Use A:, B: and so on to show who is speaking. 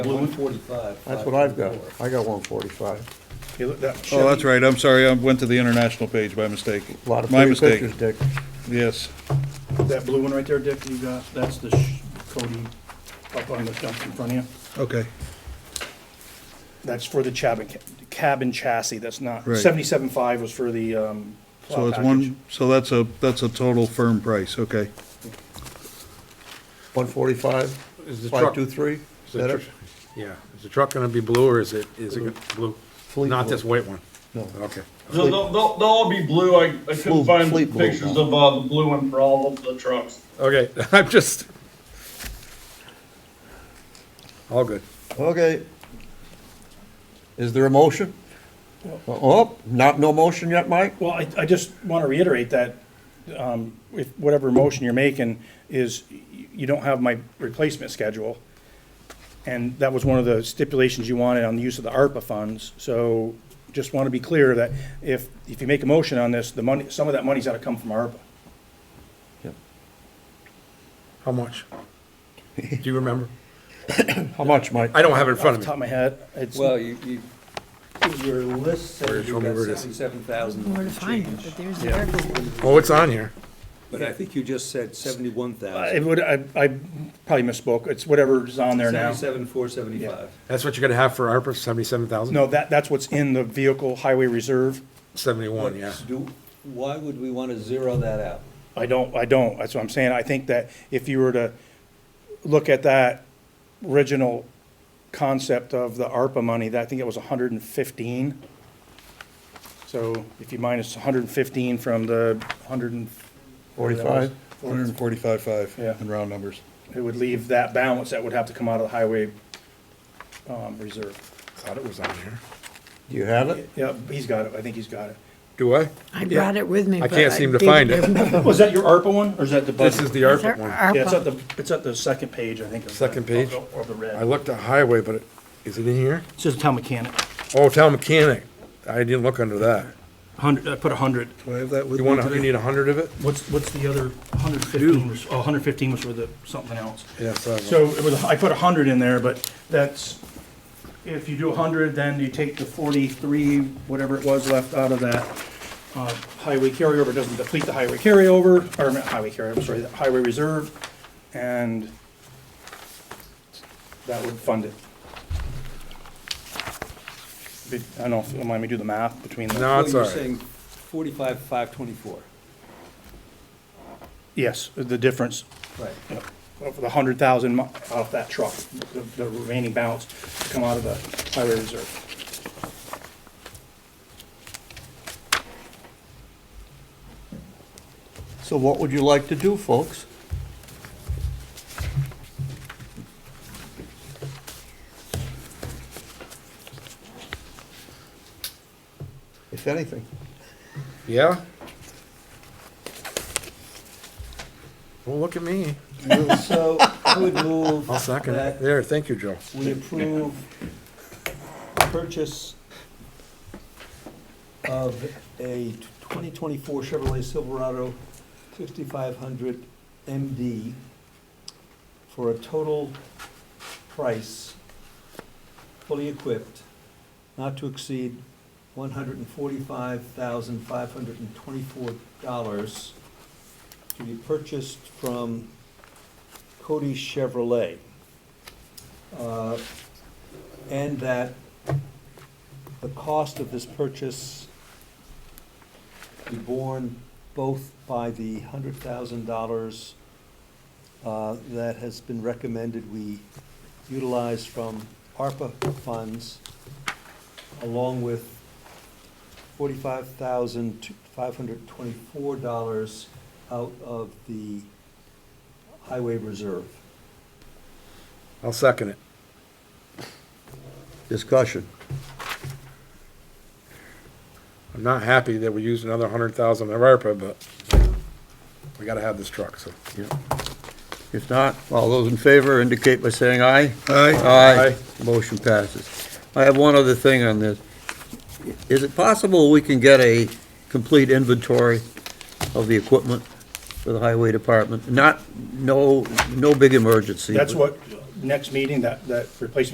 A: One forty-five.
B: That's what I've got. I got one forty-five.
C: Oh,
A: Oh, that's right, I'm sorry, I went to the international page by mistake.
B: A lot of
A: My
B: pretty
A: mistake.
B: pictures, Dick.
A: Yes,
C: That blue one right there, Dick, you got, that's the sh- Cody up on the dump in front of you.
A: okay,
C: That's for the cabin, ca- cabin chassis, that's not,
A: Right.
C: seventy-seven five was for the, um,
A: so
C: plow
A: it's
C: package.
A: one, so that's a, that's a total firm price, okay.
B: One forty-five,
D: Is the
B: five
D: truck,
B: two three. Is
D: is
B: that
D: the
B: it?
D: tr- yeah, is the truck gonna be blue or is it, is it blue?
B: Fleet
D: Not
B: blue.
D: this white one?
B: No.
D: Okay.
E: So they'll, they'll, they'll all be blue. I, I
B: Fleet-
E: couldn't find the
B: fleet blue,
E: pictures
B: no.
E: of, uh, the blue one for all of the trucks.
D: Okay, I'm just. All good.
B: Okay. Is there a motion? Oh, not, no motion yet, Mike?
C: Well, I, I just wanna reiterate that, um, if, whatever motion you're making is, y- you don't have my replacement schedule. And that was one of the stipulations you wanted on the use of the ARPA funds, so just wanna be clear that if, if you make a motion on this, the money, some of that money's gotta come from ARPA.
D: How much? Do you remember?
B: How much, Mike?
D: I don't have it in
C: Off
D: front
C: the
D: of
C: top of
D: me.
C: my head, it's,
F: Well, you, you, your list says
D: Where it's
F: you
D: from,
F: got
D: where it is.
F: seventy-seven thousand
G: Where to find it,
F: change,
G: but there's the article.
D: Oh, it's on here.
F: but I think you just said seventy-one
C: I
F: thousand.
C: would, I, I probably misspoke, it's whatever's on there now.
F: Seventy-seven, four seventy-five.
D: That's what you're gonna have for ARPA, seventy-seven thousand?
C: No, that, that's what's in the vehicle highway reserve,
D: Seventy-one, yeah.
F: Do, why would we wanna zero that out?
C: I don't, I don't, that's what I'm saying, I think that if you were to look at that original concept of the ARPA money, that, I think it was hundred and fifteen. So if you minus hundred and fifteen from the hundred and,
B: Forty-five?
A: One hundred and forty-five five
C: Yeah.
A: in round numbers.
C: it would leave that balance that would have to come out of the highway, um, reserve.
D: Thought it was on here.
B: Do you have it?
C: Yeah, he's got it, I think he's got it.
D: Do I?
G: I brought it with me,
D: I
G: but
D: can't seem to
G: didn't
D: find it.
G: remember.
C: Was Oh, that your ARPA one, or is that the budget?
D: This is the
G: It's our
D: ARPA one.
C: Yeah, it's at
G: ARPA.
C: the, it's at the second page, I think. of the-
D: Second page?
C: of the- Of the
D: I
C: red.
D: looked at highway, but it- is it in here?
C: It says town mechanic,
D: Oh, town mechanic. I didn't look under that.
C: hundred, I put a hundred.
A: Do I have that with
D: You
A: me
D: want, you
A: today?
D: need a hundred of it?
C: What's, what's the other, hundred fifteen was, oh, hundred fifteen was for the, something else.
D: Yes. I have one.
C: So it was, I put a hundred in there, but that's, if you do a hundred, then you take the forty-three, whatever it was left out of that. uh, Highway carryover It doesn't deplete the highway carryover, or not highway carryover, sorry, the highway reserve, and that would fund it. Be- I don't know if you mind me do the math between the.
D: No, it's all
F: You're
D: right.
F: saying forty-five, five twenty-four.
C: Yes, the difference
F: Right.
C: of the hundred thousand off that truck, the- the remaining balance to come out of the highway reserve.
B: So what would you like to do, folks? If anything.
D: Yeah? Don't look at me.
F: So I would move
D: I'll second it.
F: that
D: There, thank you, Joe.
F: we approve purchase of a twenty twenty-four Chevrolet Silverado fifty-five hundred MD for a total price, fully equipped, not to exceed one hundred and forty-five thousand five hundred and twenty-four dollars to be purchased from Cody Chevrolet. Uh, And that the cost of this purchase be borne both by the hundred thousand dollars uh, that has been recommended we utilize from ARPA funds, along with forty-five thousand five hundred twenty-four dollars out of the highway reserve.
D: I'll second it.
B: Discussion.
D: I'm not happy that we used another hundred thousand of ARPA, but we gotta have this truck, so.
B: If not, all those in favor indicate by saying aye.
A: Aye,
B: Aye. Motion passes. I have one other thing on this. Is it possible we can get a complete inventory of the equipment for the highway department? Not, no, no big emergency.
C: That's
B: but-
C: what, next meeting, that, that replacement